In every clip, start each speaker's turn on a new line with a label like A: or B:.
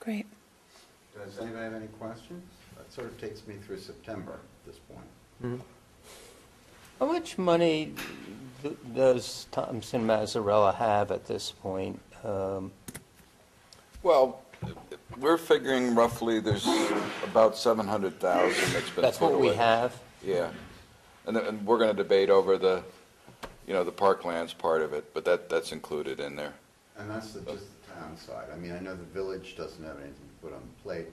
A: Great.
B: Does anybody have any questions? That sort of takes me through September at this point.
C: How much money th- does Thompson Mazzarella have at this point? Um,
D: Well, we're figuring roughly there's about 700,000 that's been
C: That's
D: put
C: what we
D: away.
C: have?
D: Yeah. And then- and we're going to debate over the, you know, the parklands part of it, but that, that's included in there.
B: And that's the, just the town side. I mean, I know the village doesn't have anything to put on the plate,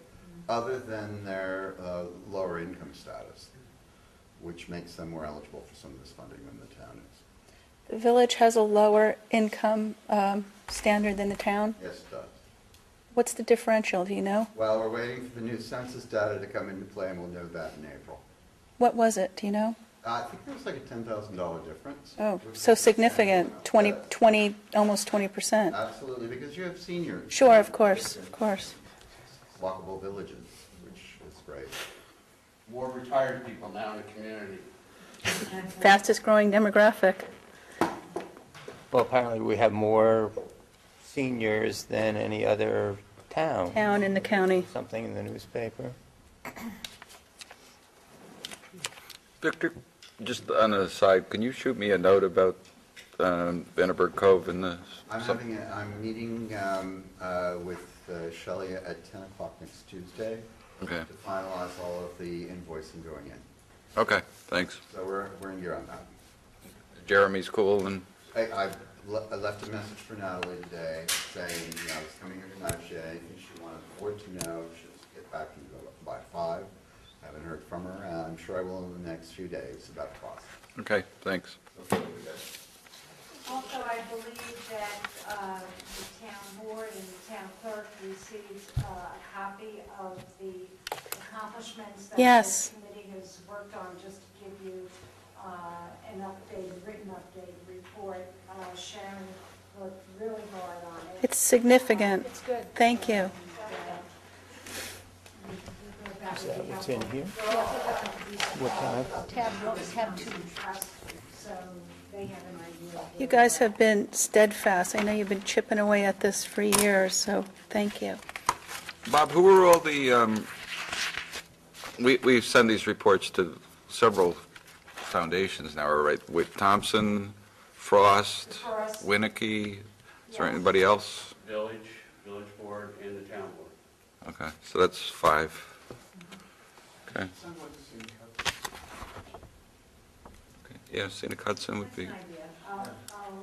B: other than their uh, lower income status, which makes them more eligible for some of this funding than the town is.
A: The village has a lower income um, standard than the town.
B: Yes, it does.
A: What's the differential, do you know?
B: Well, we're waiting for the new census data to come into play, and we'll know that in April.
A: What was it, do you know?
B: Uh, I think there was like a $10,000 difference.
A: Oh,
B: Which
A: so
B: is
A: significant, 20,
B: Yeah.
A: 20, almost 20%.
B: Absolutely, because you have seniors.
A: Sure, of course, of course.
B: Walkable villages, which is great.
E: more retired people now in the community.
A: Fastest growing demographic.
C: Well, apparently we have more seniors than any other town.
A: Town in the county.
C: Something in the newspaper.
D: Victor, just on a side, can you shoot me a note about um, Vanderburgh Cove and the,
B: I'm having, a- I'm meeting um, uh, with uh, Shelley at 10 o'clock next Tuesday
D: Okay.
B: to finalize all of the invoicing going in.
D: okay, thanks.
B: So we're, we're in gear on that.
D: Jeremy's cool and,
B: I, I le- I left a message for Natalie today saying, you know, I was coming here tonight, she had anything she wanted the board to know, she'll get back to you by five. I Haven't heard from her, and I'm sure I will in the next few days about the process.
D: okay, thanks.
B: Hopefully we get it.
F: Also, I believe that uh, the town board and the town clerk received uh, a copy of the accomplishments that
A: Yes.
F: this committee has worked on, just to give you uh, an updated, written updated report. Uh, Sharon worked really hard on it.
A: It's significant.
F: It's good.
A: Thank you.
F: Is
C: that what's in here? What time?
F: Tab, tab two. So they have an idea. of
A: You
F: where-
A: guys have been steadfast. I know you've been chipping away at this for years, so thank you.
D: Bob, who are all the, um, we, we send these reports to several foundations now, right? With Thompson, Frost,
F: Frost.
D: Winnicke, is there
F: Yeah.
D: anybody else?
E: Village, village board, and the town board.
D: Okay, so that's five. Okay, okay. yeah, Seneca Hudson would
F: That's
D: be,
F: an idea. I'll, I'll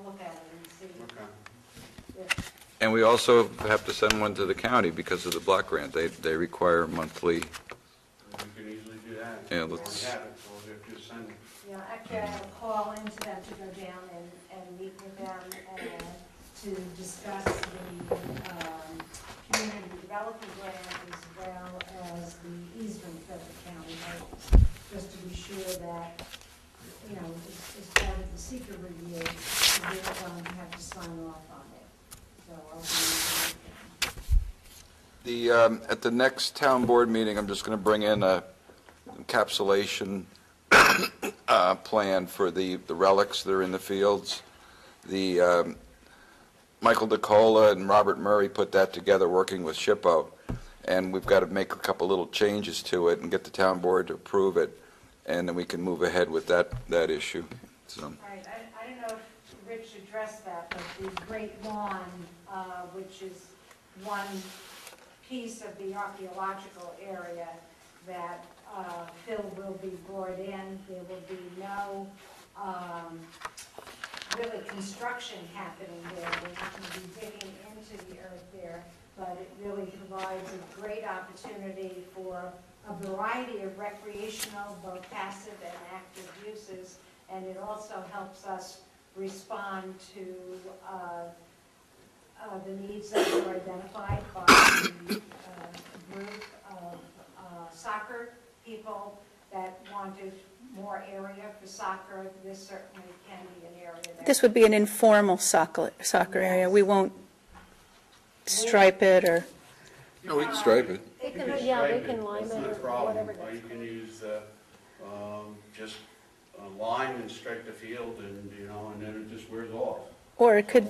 F: look at it and see.
E: Okay.
F: if-
D: and we also have to send one to the county because of the block grant. They, they require monthly,
E: We can easily do that.
D: Yeah,
E: We
D: let's-
E: already have it, so we have to send it.
F: Yeah, actually, I have a call into them to go down and, and meet with them and to discuss the, um, community development grant as well as the easement that the county has, just to be sure that, you know, as, as part of the secret review, they're going to have to sign off on it. So I'll be,
D: The, um, at the next town board meeting, I'm just going to bring in a encapsulation uh, plan for the the relics that are in the fields. The, um, Michael DeCola and Robert Murray put that together, working with Shippo, and we've got to make a couple little changes to it and get the town board to approve it, and then we can move ahead with that, that issue. So,
F: All right, I, I don't know if Rich addressed that, but the Great Lawn, uh, which is one piece of the archaeological area that uh, Phil will be brought in, there will be no um, really construction happening there, we're not going to be digging into the earth there, but it really provides a great opportunity for a variety of recreational, both passive and active uses, and it also helps us respond to uh, uh, the needs that were identified by the uh, group of uh, soccer people that wanted more area for soccer. This certainly can be an area there.
A: This would be an informal soccer, soccer area. We won't stripe it or,
D: we can stripe it.
G: They
E: You
G: can, yeah, they
E: stripe it.
G: can line
E: That's
G: it
E: not
G: or
E: a problem.
G: whatever.
E: Or you can use, uh, um, just a line and strike the field and, you know, and then it just wears off.
A: or it could